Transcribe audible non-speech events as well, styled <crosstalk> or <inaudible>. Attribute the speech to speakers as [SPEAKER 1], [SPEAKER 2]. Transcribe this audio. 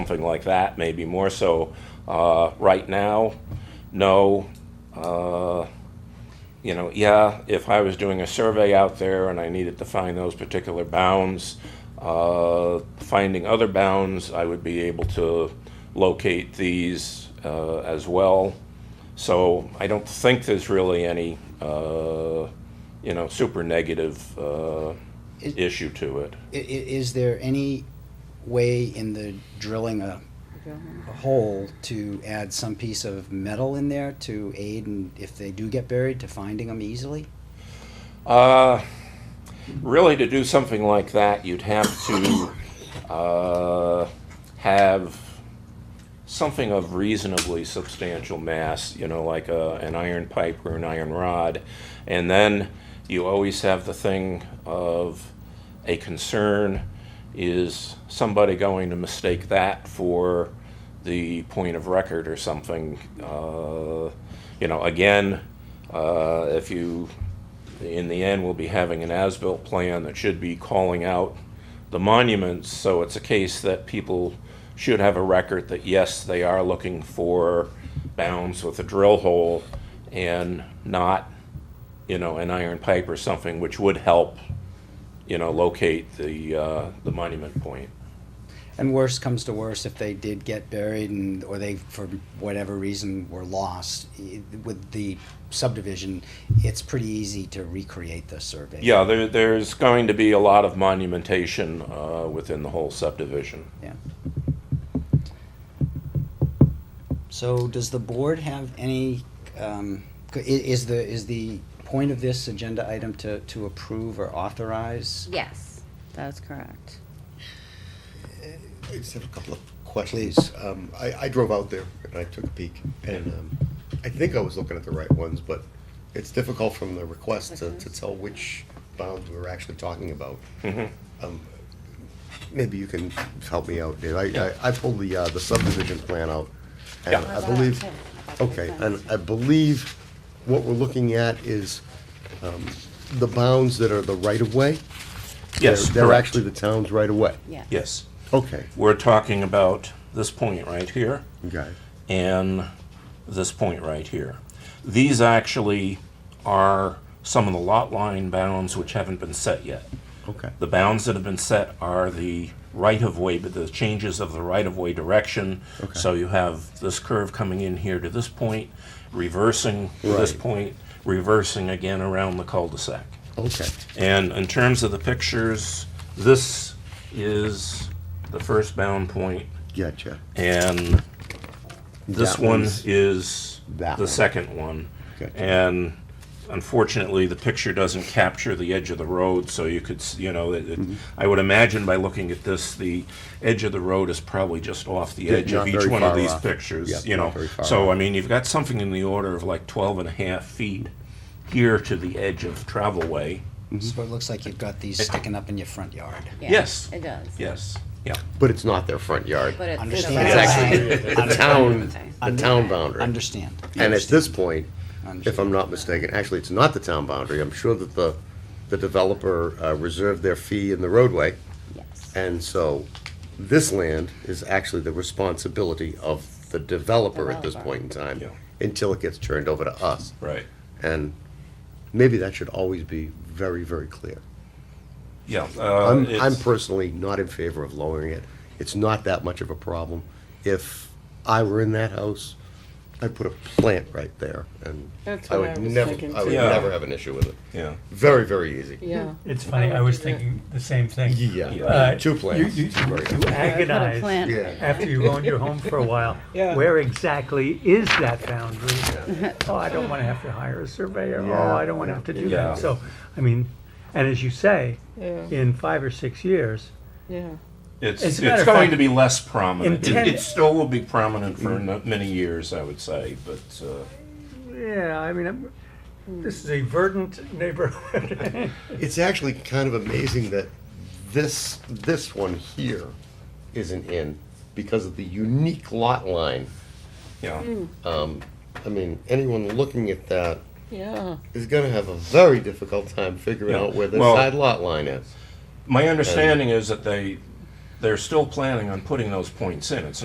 [SPEAKER 1] something like that, maybe more so. Uh, right now, no. Uh, you know, yeah, if I was doing a survey out there and I needed to find those particular bounds, uh, finding other bounds, I would be able to locate these uh, as well. So I don't think there's really any, uh, you know, super negative uh,
[SPEAKER 2] Is-
[SPEAKER 1] issue to it.
[SPEAKER 2] I- i- is there any way in the drilling a a hole to add some piece of metal in there to aid and if they do get buried to finding them easily?
[SPEAKER 1] Uh, really, to do something like that, you'd have to <coughs> uh, have something of reasonably substantial mass, you know, like a, an iron pipe or an iron rod. And then you always have the thing of a concern is somebody going to mistake that for the point of record or something? Uh, you know, again, uh, if you in the end, we'll be having an as-built plan that should be calling out the monuments, so it's a case that people should have a record that, yes, they are looking for bounds with a drill hole and not, you know, an iron pipe or something, which would help, you know, locate the, uh, the monument point.
[SPEAKER 2] And worse comes to worse, if they did get buried and, or they, for whatever reason, were lost, i- with the subdivision, it's pretty easy to recreate the survey.
[SPEAKER 1] Yeah, there, there's going to be a lot of monumentation, uh, within the whole subdivision.
[SPEAKER 2] Yeah. So does the board have any, um, c- i- is the, is the point of this agenda item to, to approve or authorize?
[SPEAKER 3] Yes, that's correct.
[SPEAKER 4] I just have a couple of questions.
[SPEAKER 2] Please.
[SPEAKER 4] Um, I, I drove out there and I took a peek, and, um, I think I was looking at the right ones, but it's difficult from the request to, to tell which bounds we're actually talking about.
[SPEAKER 1] Mm-hmm.
[SPEAKER 4] Um, Maybe you can help me out, Dave. I, I, I pulled the, uh, the subdivision plan out. and
[SPEAKER 1] Yeah.
[SPEAKER 4] I believe, okay, and I believe what we're looking at is, um, the bounds that are the right-of-way.
[SPEAKER 1] Yes,
[SPEAKER 4] They're- They're
[SPEAKER 1] correct.
[SPEAKER 4] actually the town's right-of-way.
[SPEAKER 3] Yeah.
[SPEAKER 1] Yes.
[SPEAKER 4] Okay,
[SPEAKER 1] We're talking about this point right here.
[SPEAKER 4] got it.
[SPEAKER 1] and this point right here. These actually are some of the lot line bounds which haven't been set yet.
[SPEAKER 4] Okay.
[SPEAKER 1] The bounds that have been set are the right-of-way, but the changes of the right-of-way direction.
[SPEAKER 4] Okay.
[SPEAKER 1] So you have this curve coming in here to this point, reversing to this
[SPEAKER 4] Right.
[SPEAKER 1] point, reversing again around the cul-de-sac.
[SPEAKER 4] Okay,
[SPEAKER 1] And in terms of the pictures, this is the first bound point,
[SPEAKER 4] gotcha.
[SPEAKER 1] and this
[SPEAKER 4] That
[SPEAKER 1] one
[SPEAKER 4] one's-
[SPEAKER 1] is
[SPEAKER 4] that
[SPEAKER 1] the
[SPEAKER 4] one.
[SPEAKER 1] second one.
[SPEAKER 4] Gotcha.
[SPEAKER 1] And unfortunately, the picture doesn't capture the edge of the road, so you could, s- you know, it- it-
[SPEAKER 4] Mm-hmm.
[SPEAKER 1] I would imagine by looking at this, the edge of the road is probably just off the
[SPEAKER 4] Yeah,
[SPEAKER 1] edge of
[SPEAKER 4] not
[SPEAKER 1] each
[SPEAKER 4] very
[SPEAKER 1] one of
[SPEAKER 4] far
[SPEAKER 1] these
[SPEAKER 4] off.
[SPEAKER 1] pictures,
[SPEAKER 4] Yep,
[SPEAKER 1] you
[SPEAKER 4] not
[SPEAKER 1] know.
[SPEAKER 4] very far
[SPEAKER 1] So, I
[SPEAKER 4] off.
[SPEAKER 1] mean, you've got something in the order of like 12 and a half feet here to the edge of travelway.
[SPEAKER 2] So it looks like you've got these sticking up in your front yard.
[SPEAKER 3] Yeah,
[SPEAKER 1] Yes.
[SPEAKER 3] It does.
[SPEAKER 1] Yes, yeah.
[SPEAKER 4] But it's not their front yard.
[SPEAKER 3] But it's.
[SPEAKER 2] Understand.
[SPEAKER 4] It's actually the town, the
[SPEAKER 2] Under-
[SPEAKER 4] town boundary.
[SPEAKER 2] Understand.
[SPEAKER 4] And at this point, if I'm
[SPEAKER 2] Understand.
[SPEAKER 4] not mistaken, actually, it's not the town boundary. I'm sure that the, the developer uh, reserved their fee in the roadway.
[SPEAKER 3] Yes.
[SPEAKER 4] And so this land is actually the responsibility of the developer at this
[SPEAKER 3] Developer.
[SPEAKER 4] point in time
[SPEAKER 1] Yeah.
[SPEAKER 4] until it gets turned over to us.
[SPEAKER 1] Right.
[SPEAKER 4] And maybe that should always be very, very clear.
[SPEAKER 1] Yeah. uh,
[SPEAKER 4] I'm, I'm personally not in favor of lowering it. It's not that much of a problem. If I were in that house, I'd put a plant right there, and
[SPEAKER 5] That's
[SPEAKER 4] I
[SPEAKER 5] what I
[SPEAKER 4] would
[SPEAKER 5] was
[SPEAKER 4] never,
[SPEAKER 5] thinking
[SPEAKER 4] I would
[SPEAKER 1] too. Yeah.
[SPEAKER 4] never have an issue with it.
[SPEAKER 1] Yeah.
[SPEAKER 4] Very, very easy.
[SPEAKER 5] Yeah.
[SPEAKER 6] It's funny,
[SPEAKER 5] I
[SPEAKER 6] I was
[SPEAKER 5] would do that.
[SPEAKER 6] thinking the same thing.
[SPEAKER 4] Yeah,
[SPEAKER 6] Uh,
[SPEAKER 4] two plants.
[SPEAKER 6] You, you,
[SPEAKER 4] Very
[SPEAKER 6] you
[SPEAKER 4] good.
[SPEAKER 6] agonize after you've owned your home for
[SPEAKER 5] <laughs>
[SPEAKER 6] a while. Where exactly is that
[SPEAKER 5] <laughs>
[SPEAKER 6] boundary? Oh, I don't wanna have to hire a surveyor, oh, I don't wanna have to do
[SPEAKER 1] Yeah.
[SPEAKER 6] that. So, I mean, and as you say,
[SPEAKER 5] Yeah.
[SPEAKER 6] in five or six years,
[SPEAKER 5] Yeah.
[SPEAKER 1] It's,
[SPEAKER 6] As
[SPEAKER 1] it's
[SPEAKER 6] a matter
[SPEAKER 1] going
[SPEAKER 6] of fact,
[SPEAKER 1] to be less prominent. It,
[SPEAKER 6] intent-
[SPEAKER 1] it still will be prominent for no- many years, I would say, but uh,
[SPEAKER 6] yeah, I mean, I'm- this is a
[SPEAKER 5] <laughs>
[SPEAKER 6] verdant neighborhood.
[SPEAKER 4] It's actually kind of amazing that this, this one here isn't in because of the unique lot line.
[SPEAKER 1] yeah.
[SPEAKER 4] I mean, anyone looking at that
[SPEAKER 5] Yeah.
[SPEAKER 4] is gonna have a very difficult time figuring
[SPEAKER 1] Yeah.
[SPEAKER 4] out where the
[SPEAKER 1] Well-
[SPEAKER 4] side lot line is.
[SPEAKER 1] My understanding is that they they're still planning on putting those points in. It's